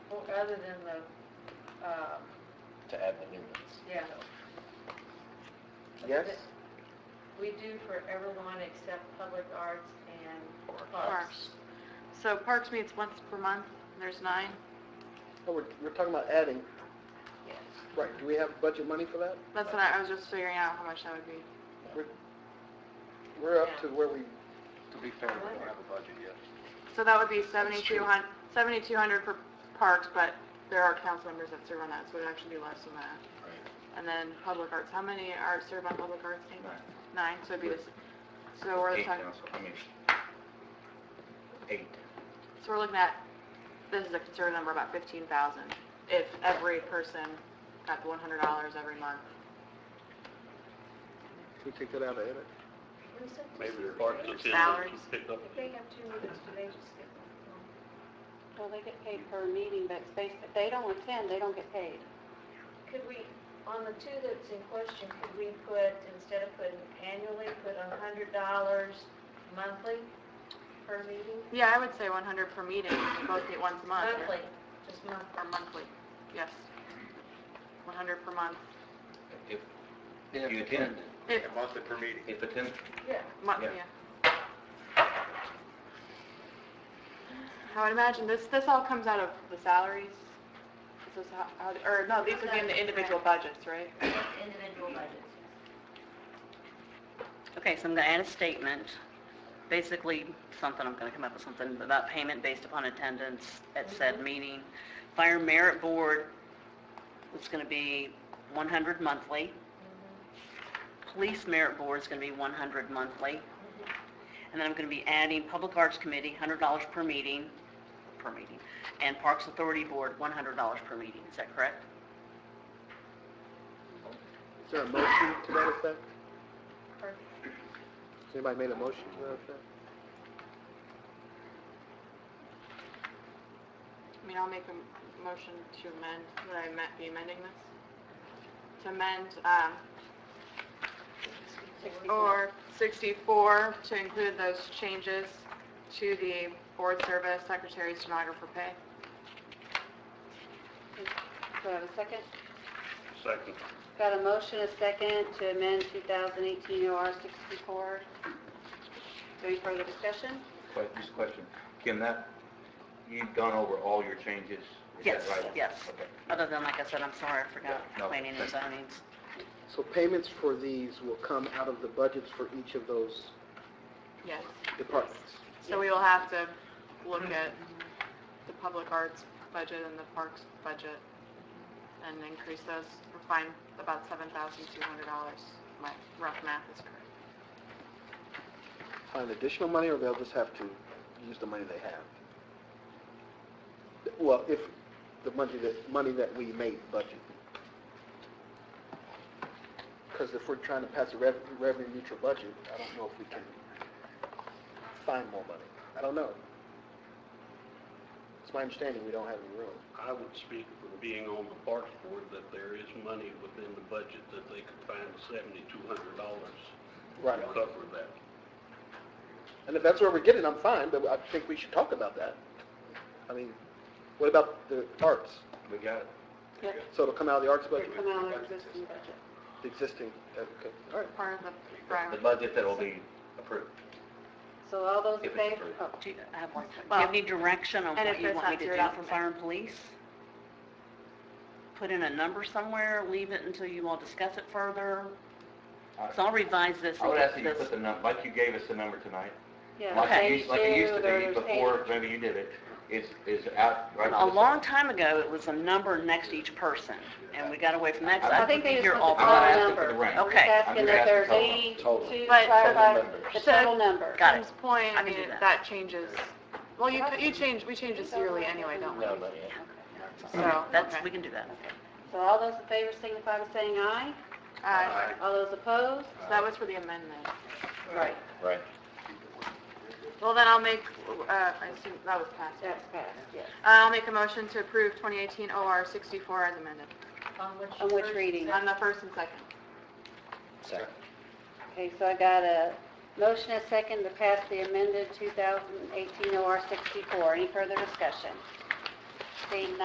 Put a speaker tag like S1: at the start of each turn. S1: other than the, uh,
S2: to add the new ones.
S1: yeah.
S3: Yes?
S1: We do for everyone except public arts and parks.
S4: Parks. So Parks meets once per month, and there's nine.
S3: Oh, we're, we're talking about adding,
S1: Yes.
S3: right, do we have budget money for that?
S4: That's what I, I was just figuring out how much that would be.
S3: We're- We're up to where we,
S5: To be fair, we don't have a budget yet.
S4: So that would be 7,200 7,200 for Parks, but there are council members that serve on that, so it'd actually be less than that. And then Public Arts, how many are served on Public Arts team? Nine, so it'd be this, so we're
S2: Eight
S4: talking,
S2: council, I mean, eight.
S4: so we're looking at, this is a conservative number, about 15,000, if every person got the $100 every month.
S3: can we take that out of edit?
S6: Maybe they're
S2: Or-
S6: continuing
S4: Salaries.
S6: to pick up.
S1: If they have two meetings, do they just skip one?
S7: Well, they get paid per meeting, but it's basi- if they don't attend, they don't get paid.
S1: Could we, on the two that's in question, could we put, instead of putting annually, put a hundred dollars monthly per meeting?
S4: Yeah, I would say 100 per meeting, if we both meet once a month. or-
S1: Monthly, just monthly.
S4: Or monthly, yes. 100 per month,
S2: If, if you attend,
S4: If-
S5: Monthly per meeting.
S2: if attend,
S1: Yeah.
S4: month,
S2: Yeah.
S4: yeah. I would imagine this, this all comes out of the salaries? This is how, how- or no, these would be in the individual budgets, right?
S1: Individual budgets.
S8: Okay, so I'm going to add a statement, basically something, I'm going to come up with something about payment based upon attendance at
S4: Mm-hmm.
S8: said meeting. Fire Merit Board, it's going to be 100 monthly. Police Merit Board is going to be 100 monthly. And then I'm going to be adding Public Arts Committee, $100 per meeting, per meeting, and Parks Authority Board, $100 per meeting. Is that correct?
S3: Is there a motion to that effect?
S1: Perfect.
S3: Has anybody made a motion to that effect?
S4: I mean, I'll make a m- motion to amend, would I ma- be amending this? To amend, um, or 64 to include those changes to the board service, secretary, stenographer pay.
S7: Do I have a second?
S6: Second.
S7: Got a motion, a second, to amend 2018 OR 64. Any further discussion?
S2: que- just a question, Kim, that, you've gone over all your changes? is that
S8: Yes,
S2: right?
S8: yes.
S2: Okay.
S8: Other than, like I said, I'm sorry, I forgot
S2: No,
S8: planning and
S2: thank you.
S8: zonings.
S3: So payments for these will come out of the budgets for each of those
S4: Yes.
S3: departments?
S4: So we will have to look at the public arts budget and the parks budget and increase those, or find about $7,200. My rough math is correct.
S3: Find additional money, or they'll just have to use the money they have? Well, if, the money that, money that we made budget. Because if we're trying to pass a rev- revenue neutral budget, I don't know if we can find more money. I don't know. It's my understanding we don't have any room.
S6: I would speak from being on the Parks Board that there is money within the budget that they could find seventy-two hundred dollars to cover that.
S3: And if that's where we get it, I'm fine, but I think we should talk about that. I mean, what about the arts?
S2: We got it.
S7: Yep.
S3: So it'll come out of the arts budget?
S7: It's come out of our existing budget.
S3: The existing, okay, all right.
S4: Part of the
S2: The
S4: prior-
S2: budget that'll be approved.
S7: So all those in
S2: If it's
S7: favor?
S2: approved.
S7: oh,
S8: Do you I have one question. Do
S4: Well-
S8: you have any direction on
S4: And
S8: what
S4: if
S8: you
S4: it's
S8: want me
S4: not
S8: to
S4: zeroed
S8: do
S4: out
S8: for
S4: from
S8: fire and police? Put in a number somewhere, leave it until you all discuss it further? So I'll revise this
S2: I
S8: and
S2: would ask that
S8: get
S2: you
S8: this.
S2: put the num, like you gave us the number tonight.
S7: Yeah,
S2: Like it used- Like it used to
S7: 82, there's
S2: be before,
S7: 80.
S2: maybe you did it, is, is out right
S8: A
S2: to the
S8: long
S2: side.
S8: time ago, it was a number next to each person, and we got away from that, 'cause
S2: I
S8: I think
S7: think they
S8: we
S7: just
S8: hear
S7: put
S8: all
S7: the
S2: I'm not
S7: total
S8: about
S2: asking
S8: it.
S2: for the
S7: number.
S2: range.
S8: Okay.
S7: Asking
S2: I'm
S7: that
S2: just
S7: there's
S2: asking total,
S7: 82,
S2: total.
S4: But-
S7: clarify the
S2: Total
S7: total number.
S8: Got it.
S4: Kim's point, I
S8: I can
S4: mean,
S8: do that.
S4: that changes, well, you, c- you change, we change this yearly anyway, don't we?
S2: No, not yet.
S4: So,
S8: That's,
S4: okay.
S8: we can do that.
S7: So all those in favor signify by saying aye.
S4: Aye.
S7: All those opposed?
S4: So that was for the amendment.
S7: Right,
S2: Right.
S4: Well, then I'll make, uh, I assume, that was passed. Uh,
S7: that's passed, yes.
S4: I'll make a motion to approve 2018 OR 64 as amended,
S1: On which
S7: On which
S1: first-
S7: reading?
S4: on the first and second.
S2: Second.
S7: Okay, so I got a motion and a second to pass the amended 2018 OR 64. Any further discussion? Seeing none,